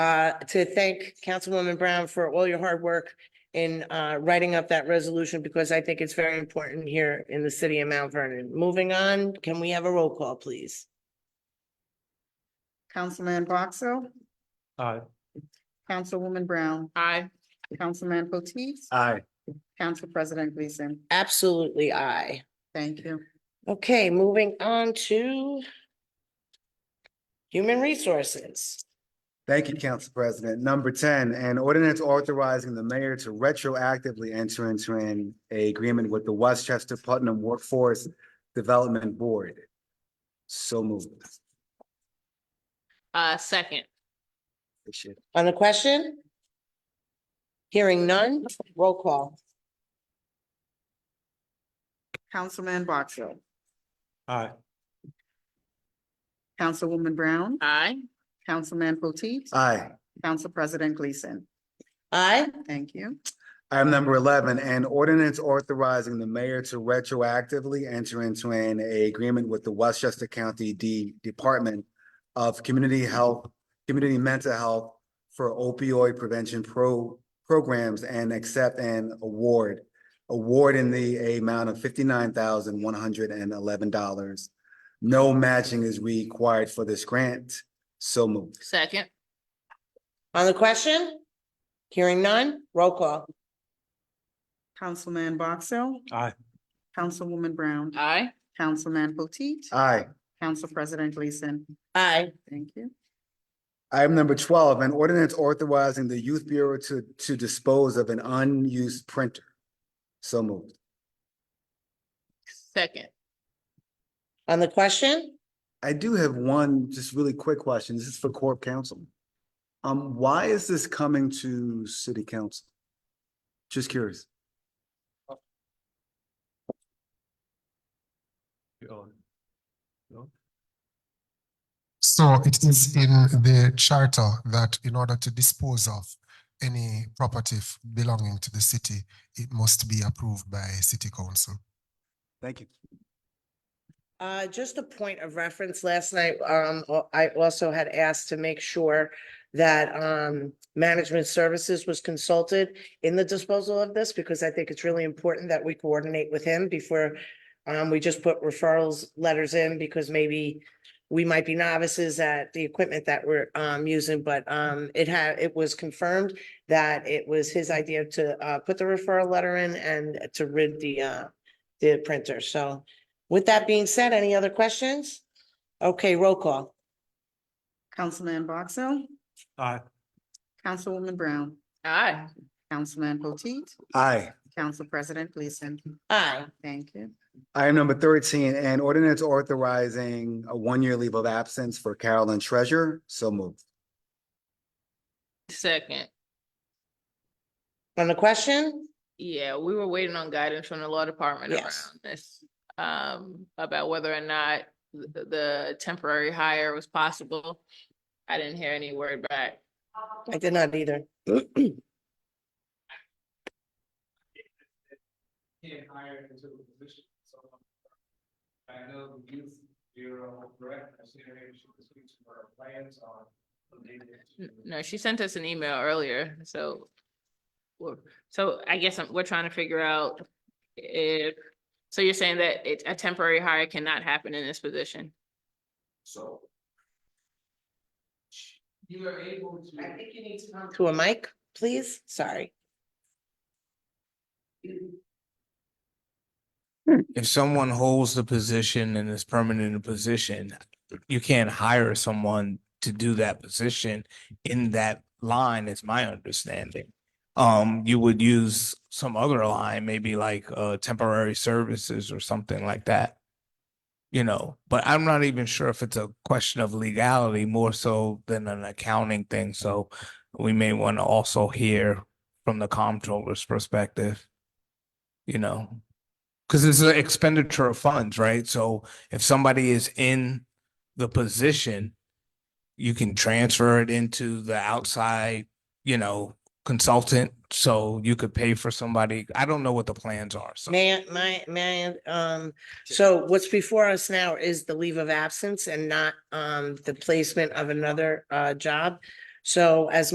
uh, to thank Councilwoman Brown for all your hard work in, uh, writing up that resolution because I think it's very important here in the city of Mount Vernon. Moving on, can we have a roll call, please? Councilman Boxill, Aye. Councilwoman Brown, Aye. Councilman Potteet, Aye. Council President Gleason. Absolutely, aye. Thank you. Okay, moving on to human resources. Thank you, Council President. Number ten, an ordinance authorizing the mayor to retroactively enter into an agreement with the Westchester Putnam Workforce Development Board. So moved. Uh, second. Appreciate it. On the question? Hearing none, roll call. Councilman Boxill, Aye. Councilwoman Brown, Aye. Councilman Potteet, Aye. Council President Gleason. Aye, Thank you. Item number eleven, an ordinance authorizing the mayor to retroactively enter into an agreement with the Westchester County D Department of Community Health, Community Mental Health for opioid prevention pro- programs and accept an award. Award in the amount of fifty-nine thousand one hundred and eleven dollars. No matching is required for this grant. So moved. Second. on the question? Hearing none, roll call. Councilman Boxill. Aye. Councilwoman Brown, Aye. Councilman Potteet, Aye. Council President Gleason. Aye, Thank you. Item number twelve, an ordinance authorizing the youth bureau to, to dispose of an unused printer. So moved. Second. on the question? I do have one just really quick question. This is for Corp Council. Um, why is this coming to city council? Just curious. You own it. So it is in the charter that in order to dispose of any property f- belonging to the city, it must be approved by city council. Thank you. Uh, just a point of reference, last night, um, al- I also had asked to make sure that, um, management services was consulted in the disposal of this, because I think it's really important that we coordinate with him before, um, we just put referrals letters in, because maybe we might be novices at the equipment that we're, um, using, but, um, it had, it was confirmed that it was his idea to, uh, put the referral letter in and to rid the, uh, the printer, so with that being said, any other questions? Okay, roll call. Councilman Boxill, Aye. Councilwoman Brown, Aye. Councilman Potteet, Aye. Council President Gleason. Aye, Thank you. Item number thirteen, an ordinance authorizing a one-year leave of absence for Carolyn Treasure. So moved. Second. on the question? Yeah, we were waiting on guidance from the law department around Yes. this. Um, about whether or not the, the temporary hire was possible. I didn't hear any word back. I did not either. can't hire into the position, so. I know the youth bureau director, senior leadership, speaks for our plans on. N- No, she sent us an email earlier, so. we're- So I guess I'm- we're trying to figure out if, so you're saying that it, a temporary hire cannot happen in this position? So. You are able to. you need to come. To a mic, please? Sorry. if someone holds the position and is permanent in the position, you can't hire someone to do that position in that line, is my understanding. Um, you would use some other line, maybe like uh temporary services or something like that. You know, but I'm not even sure if it's a question of legality more so than an accounting thing, so we may want to also hear from the comptroller's perspective. You know, because it's an expenditure of funds, right? So if somebody is in the position, you can transfer it into the outside, you know, consultant. So you could pay for somebody. I don't know what the plans are. So May, I- my, may, I, um, so what's before us now is the leave of absence and not, um, the placement of another, uh, job. So as